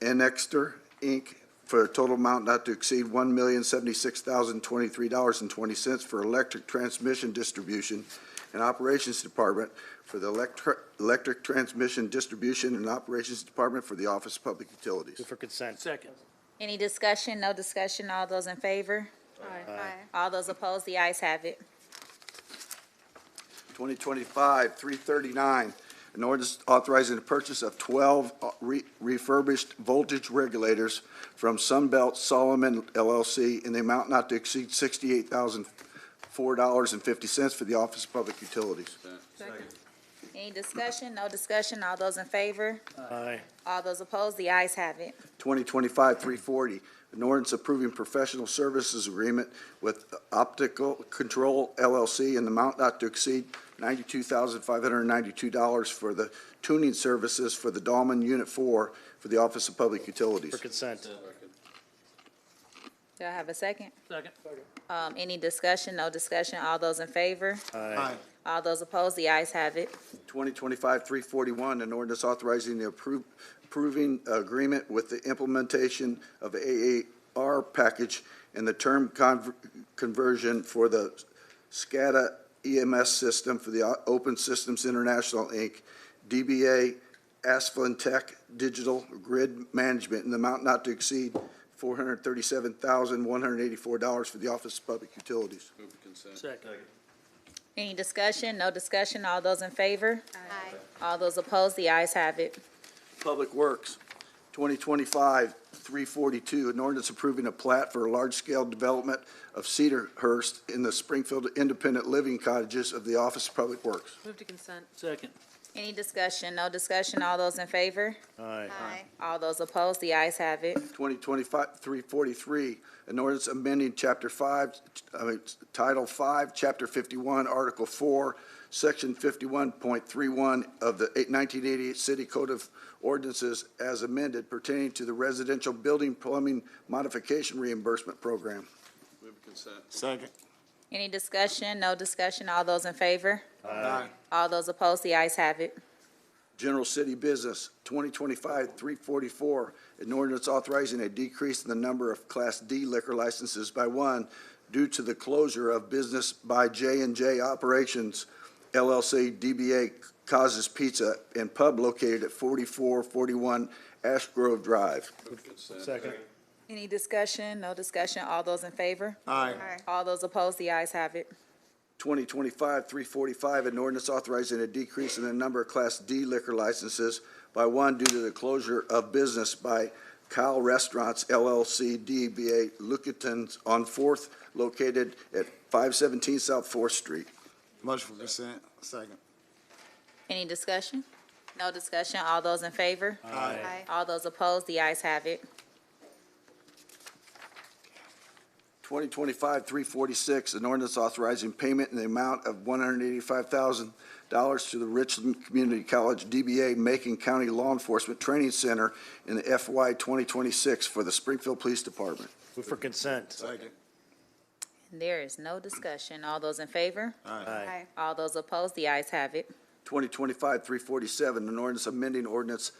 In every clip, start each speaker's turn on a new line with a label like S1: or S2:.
S1: Annexter, Inc., for a total amount not to exceed $1,076,023.20 for electric transmission distribution and operations department for the electric, electric transmission distribution and operations department for the Office of Public Utilities.
S2: Move for consent.
S3: Second.
S4: Any discussion? No discussion? All those in favor? All those opposed? The ayes have it.
S1: 2025-339, an ordinance authorizing the purchase of 12 re- refurbished voltage regulators from Sunbelt Solomon LLC in the amount not to exceed $68,004.50 for the Office of Public Utilities.
S4: Any discussion? No discussion? All those in favor?
S2: Aye.
S4: All those opposed? The ayes have it.
S1: 2025-340, an ordinance approving professional services agreement with Optical Control LLC in the amount not to exceed $92,592 for the tuning services for the Dahlman Unit 4 for the Office of Public Utilities.
S2: For consent.
S4: Do I have a second?
S3: Second.
S4: Um, any discussion? No discussion? All those in favor?
S2: Aye.
S4: All those opposed? The ayes have it.
S1: 2025-341, an ordinance authorizing the appro- approving agreement with the implementation of AAR package and the term conver- conversion for the SCADA EMS system for the O- Open Systems International, Inc., DBA Asplin Tech Digital Grid Management in the amount not to exceed $437,184 for the Office of Public Utilities.
S3: Second.
S4: Any discussion? No discussion? All those in favor? All those opposed? The ayes have it.
S1: Public Works, 2025-342, an ordinance approving a plat for a large-scale development of Cedarhurst in the Springfield Independent Living Cottages of the Office of Public Works.
S5: Move to consent.
S3: Second.
S4: Any discussion? No discussion? All those in favor?
S2: Aye.
S4: All those opposed? The ayes have it.
S1: 2025-343, an ordinance amending Chapter 5, I mean, Title 5, Chapter 51, Article 4, Section 51.31 of the 1988 City Code of Ordinances as amended pertaining to the residential building plumbing modification reimbursement program.
S2: Second.
S4: Any discussion? No discussion? All those in favor?
S2: Aye.
S4: All those opposed? The ayes have it.
S1: General City Business, 2025-344, an ordinance authorizing a decrease in the number of Class D liquor licenses by one due to the closure of business by j and J Operations LLC DBA Causes Pizza and Pub located at 4441 Ash Grove Drive.
S2: Second.
S4: Any discussion? No discussion? All those in favor?
S2: Aye.
S4: All those opposed? The ayes have it.
S1: 2025-345, an ordinance authorizing a decrease in the number of Class D liquor licenses by one due to the closure of business by Kyle Restaurants LLC DBA Lucatons on Fourth located at 517 South Fourth Street.
S6: Motion for consent, second.
S4: Any discussion? No discussion? All those in favor? All those opposed? The ayes have it.
S1: 2025-346, an ordinance authorizing payment in the amount of $185,000 to the Richland Community College DBA Macon County Law Enforcement Training Center in the FY 2026 for the Springfield Police Department.
S2: Move for consent.
S6: Second.
S4: There is no discussion. All those in favor?
S2: Aye.
S4: All those opposed? The ayes have it.
S1: 2025-347, an ordinance amending ordinance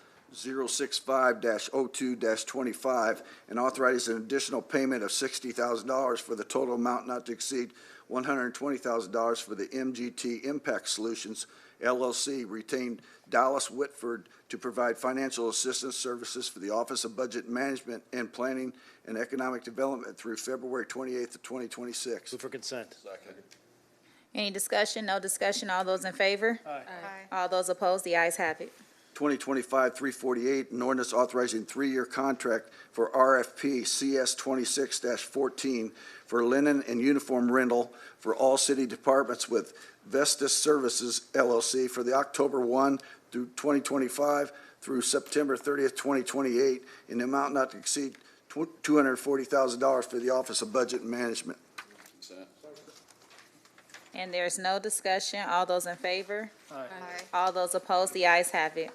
S1: 065-02-25, and authorizing an additional payment of $60,000 for the total amount not to exceed $120,000 for the MGT Impact Solutions LLC retained Dallas Whitford to provide financial assistance services for the Office of Budget Management and Planning and Economic Development through February 28th of 2026.
S2: Move for consent.
S4: Any discussion? No discussion? All those in favor? All those opposed? The ayes have it.
S1: 2025-348, an ordinance authorizing three-year contract for RFP CS 26-14 for linen and uniform rental for all city departments with Vestas Services LLC for the October 1 through 2025 through September 30th, 2028, in the amount not to exceed tw- $240,000 for the Office of Budget and Management.
S4: And there's no discussion. All those in favor?
S5: Aye.
S4: All those opposed? The ayes have it.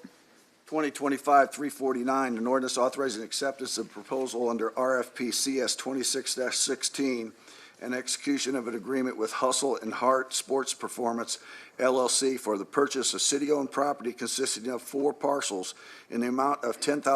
S1: 2025-349, an ordinance authorizing acceptance of proposal under RFP CS 26-16 and execution of an agreement with Hustle and Hart Sports Performance LLC for the purchase of city-owned property consisting of four parcels in the amount of ten thousand.